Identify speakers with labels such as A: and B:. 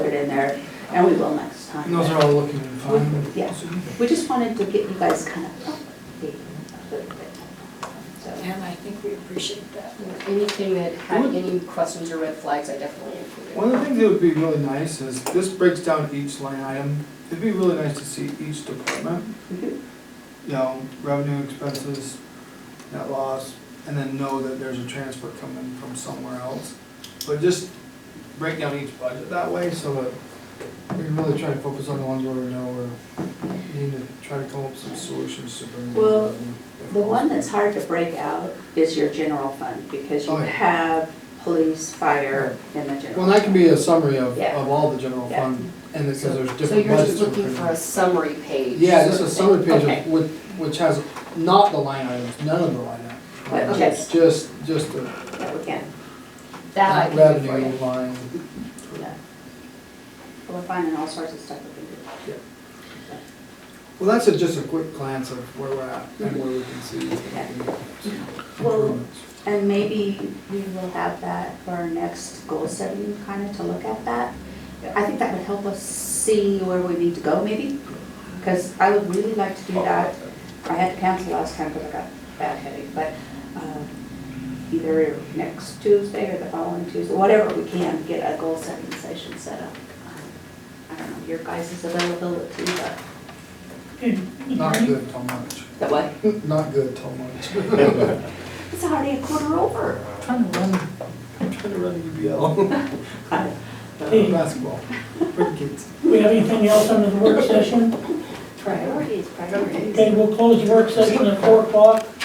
A: better, and we will next time.
B: And those are all looking fine.
A: Yeah. We just wanted to get you guys kind of updated a little bit. So,
C: And I think we appreciate that.
D: Anything that had any questions or red flags, I definitely included.
B: One of the things that would be really nice is, this breaks down each line item. It'd be really nice to see each department,
A: mhm,
B: you know, revenue, expenses, net loss, and then know that there's a transfer coming from somewhere else. But just break down each budget that way, so that we can really try to focus on the ones where we know we need to try to come up with some solutions to bring. in
A: Well,
B: revenue.
A: The one that's hard to break out is your general fund, because you
B: Oh, yeah.
A: have police, fire, and the general.
B: Well, that can be a summary of,
A: Yeah.
B: of all the general
A: Yeah.
B: fund, and it's,
D: So
B: there's different budgets.
D: so you're just
B: we're
D: looking
B: putting
D: for
B: in.
D: a summary page?
B: Yeah, just
D: sort
B: a
D: of
B: summary
D: thing?
B: page
A: Okay.
B: of, with, which has not the line items, none of the line items.
A: But
B: Just-
A: just-
B: Just, just the
A: That we can,
D: That I can do for
B: revenue
D: you.
B: line.
A: yeah. We're finding all sorts of stuff we can do.
B: Well, that's a- just a quick glance of where we're at and where we can see.
A: Well, And maybe we will have that for our next goal setting, kind of to look at that. I think that would help us see where we need to go maybe, because I would really like to do that. I had to cancel last time because I got bad headache, but um, either next Tuesday or the following Tuesday, whatever we can, get a goal setting session set up. I don't know, your guys' availability, but.
B: Not good till March,
A: The what?
B: not good till March.
A: It's already a quarter over.
B: Trying to run, I'm trying to run E UBL,
E: Hey.
B: basketball, for kids.
E: Do we have anything else under the work session?
A: Priorities, priorities.
E: Okay, we'll close the work session at four o'clock.